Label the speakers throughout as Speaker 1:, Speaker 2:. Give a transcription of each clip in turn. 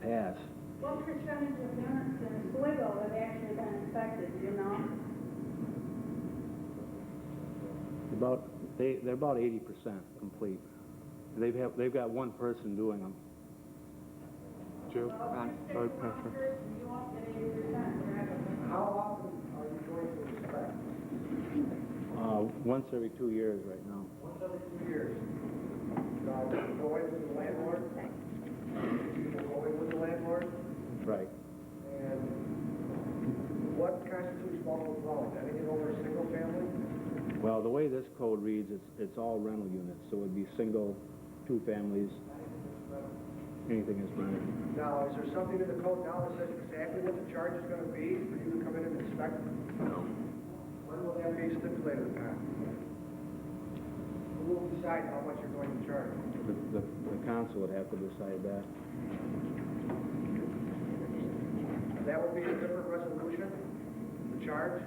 Speaker 1: have.
Speaker 2: What percentage of units in Sligo have actually been infected, do you know?
Speaker 1: About, they, they're about eighty percent complete. They've have, they've got one person doing them.
Speaker 3: Joe?
Speaker 2: Well, if you stick one person, you won't get eighty percent, right?
Speaker 4: How often are you going to inspect?
Speaker 1: Uh, once every two years right now.
Speaker 4: Once every two years. Now, do you go in with the landlord? You go in with the landlord?
Speaker 1: Right.
Speaker 4: And what constitutes multiple dwellings? Anything over a single family?
Speaker 1: Well, the way this code reads, it's, it's all rental units, so it'd be single, two families, anything is rented.
Speaker 4: Now, is there something in the code now that says exactly what the charge is gonna be for you to come in and inspect?
Speaker 3: No.
Speaker 4: When will that be stipulated upon? Who will decide how much you're going to charge?
Speaker 1: The, the the council would have to decide that.
Speaker 4: That would be a different resolution, the charge?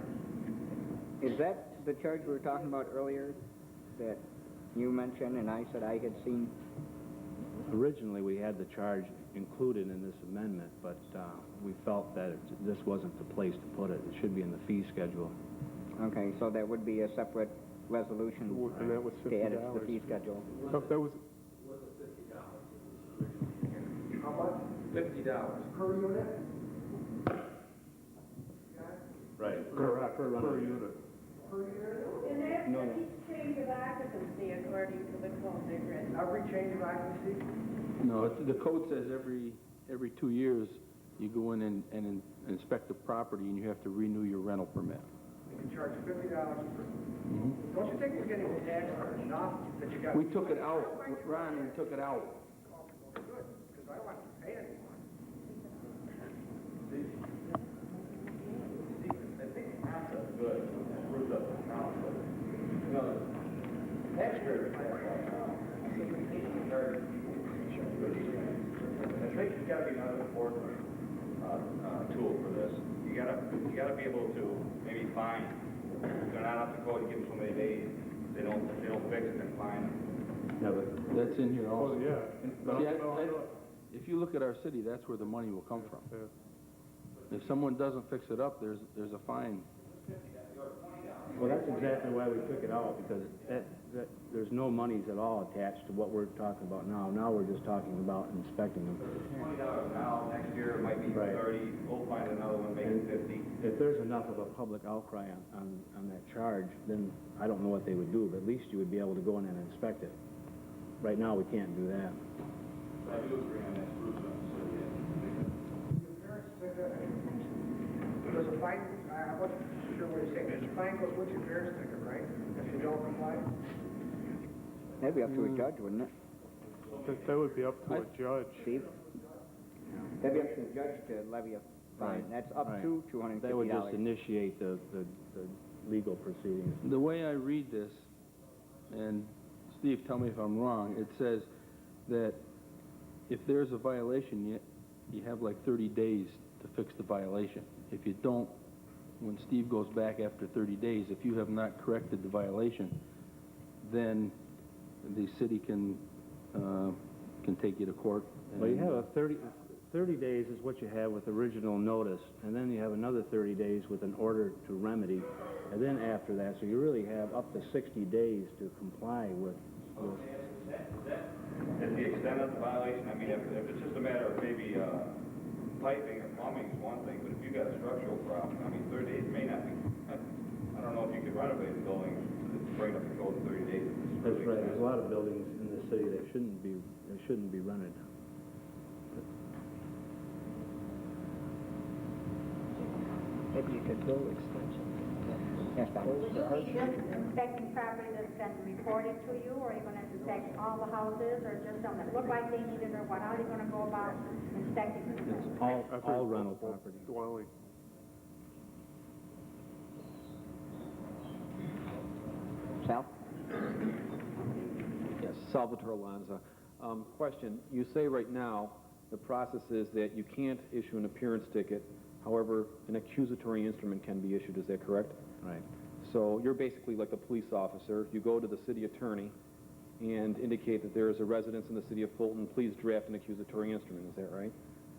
Speaker 5: Is that the charge we were talking about earlier that you mentioned and I said I had seen?
Speaker 1: Originally, we had the charge included in this amendment, but uh, we felt that it- this wasn't the place to put it. It should be in the fee schedule.
Speaker 5: Okay, so that would be a separate resolution uh,
Speaker 3: And that was
Speaker 5: to add it to the
Speaker 3: $50.
Speaker 5: fee schedule.
Speaker 3: Oh, That was,
Speaker 4: How much? Fifty dollars. Per unit?
Speaker 3: Per, per unit.
Speaker 2: And that's if each change of occupancy according to the code they've written.
Speaker 4: Every change of occupancy?
Speaker 6: No, it's- the code says every, every two years, you go in and, and in- inspect the property and you have to renew your rental permit.
Speaker 4: You can charge fifty dollars per. Don't you think we're getting taxed for enough that you got?
Speaker 6: Mm-hmm. We took it out, Ron, we took it out.
Speaker 4: Good, because I want to pay anyone.
Speaker 7: I think there's gotta be another important, uh, uh, tool for this. You gotta, you gotta be able to maybe find, if they're not up to code, give them so many days, they don't, if they don't fix it, then fine them.
Speaker 6: That's in here
Speaker 3: Oh,
Speaker 6: also.
Speaker 3: yeah.
Speaker 6: But yeah, that- if you look at our city, that's where the money will come from. If someone doesn't fix it up, there's, there's a fine.
Speaker 1: Well, that's exactly why we took it out, because that, that, there's no monies at all attached to what we're talking about now. Now we're just talking about inspecting them.
Speaker 7: Twenty dollars now, next year it might be
Speaker 1: Right.
Speaker 7: thirty, we'll find another one, make it fifty.
Speaker 1: If there's enough of a public outcry on, on, on that charge, then I don't know what they would do, but at least you would be able to go in and inspect it. Right now, we can't do that.
Speaker 7: I do agree on that, Bruce, so, yeah.
Speaker 4: Your parents said that. There's a fine, I- I'm not sure what you're saying, there's a fine goes with your parents' ticket, right? If you don't comply?
Speaker 5: That'd be up to a judge, wouldn't it?
Speaker 3: Mm. That, that would be up to a judge.
Speaker 5: Steve? That'd be up to the judge to levy a fine.
Speaker 1: Right,
Speaker 5: That's up
Speaker 1: right.
Speaker 5: to two hundred and
Speaker 1: That
Speaker 5: fifty
Speaker 1: would just
Speaker 5: dollars.
Speaker 1: initiate the, the, the legal proceedings.
Speaker 6: The way I read this, and Steve, tell me if I'm wrong, it says that if there's a violation, you, you have like thirty days to fix the violation. If you don't, when Steve goes back after thirty days, if you have not corrected the violation, then the city can, uh, can take you to court.
Speaker 1: Well, you
Speaker 6: and-
Speaker 1: have a 30 30 days is what you have with original notice, and then you have another thirty days with an order to remedy, and then after that, so you really have up to sixty days to comply with, with
Speaker 7: At the extent of the violation, I mean, if, if it's just a matter of maybe, uh, piping or plumbing is one thing, but if you've got a structural problem, I mean, thirty days may not be, I, I don't know if you could renovate a building, to bring it up to code in thirty days. It's
Speaker 1: That's
Speaker 7: really
Speaker 1: right, there's a
Speaker 7: expensive.
Speaker 1: lot of buildings in the city that shouldn't be, that shouldn't be rented.
Speaker 5: Maybe you could go extension. Yes, Bob.
Speaker 2: Will you be just inspecting property that's been reported to you, or are you gonna inspect all the houses, or just some that look like they need it, or what, how are you gonna go about inspecting?
Speaker 1: It's all,
Speaker 3: I've heard
Speaker 1: all rental
Speaker 3: multiple
Speaker 1: property.
Speaker 3: Dwelling.
Speaker 5: Sal?
Speaker 8: Yes, Salvatore Alonso. Um, question, you say right now, the process is that you can't issue an appearance ticket, however, an accusatory instrument can be issued, is that correct?
Speaker 1: Right.
Speaker 8: So you're basically like a police officer, you go to the city attorney and indicate that there is a residence in the city of Fulton, please draft an accusatory instrument, is that right?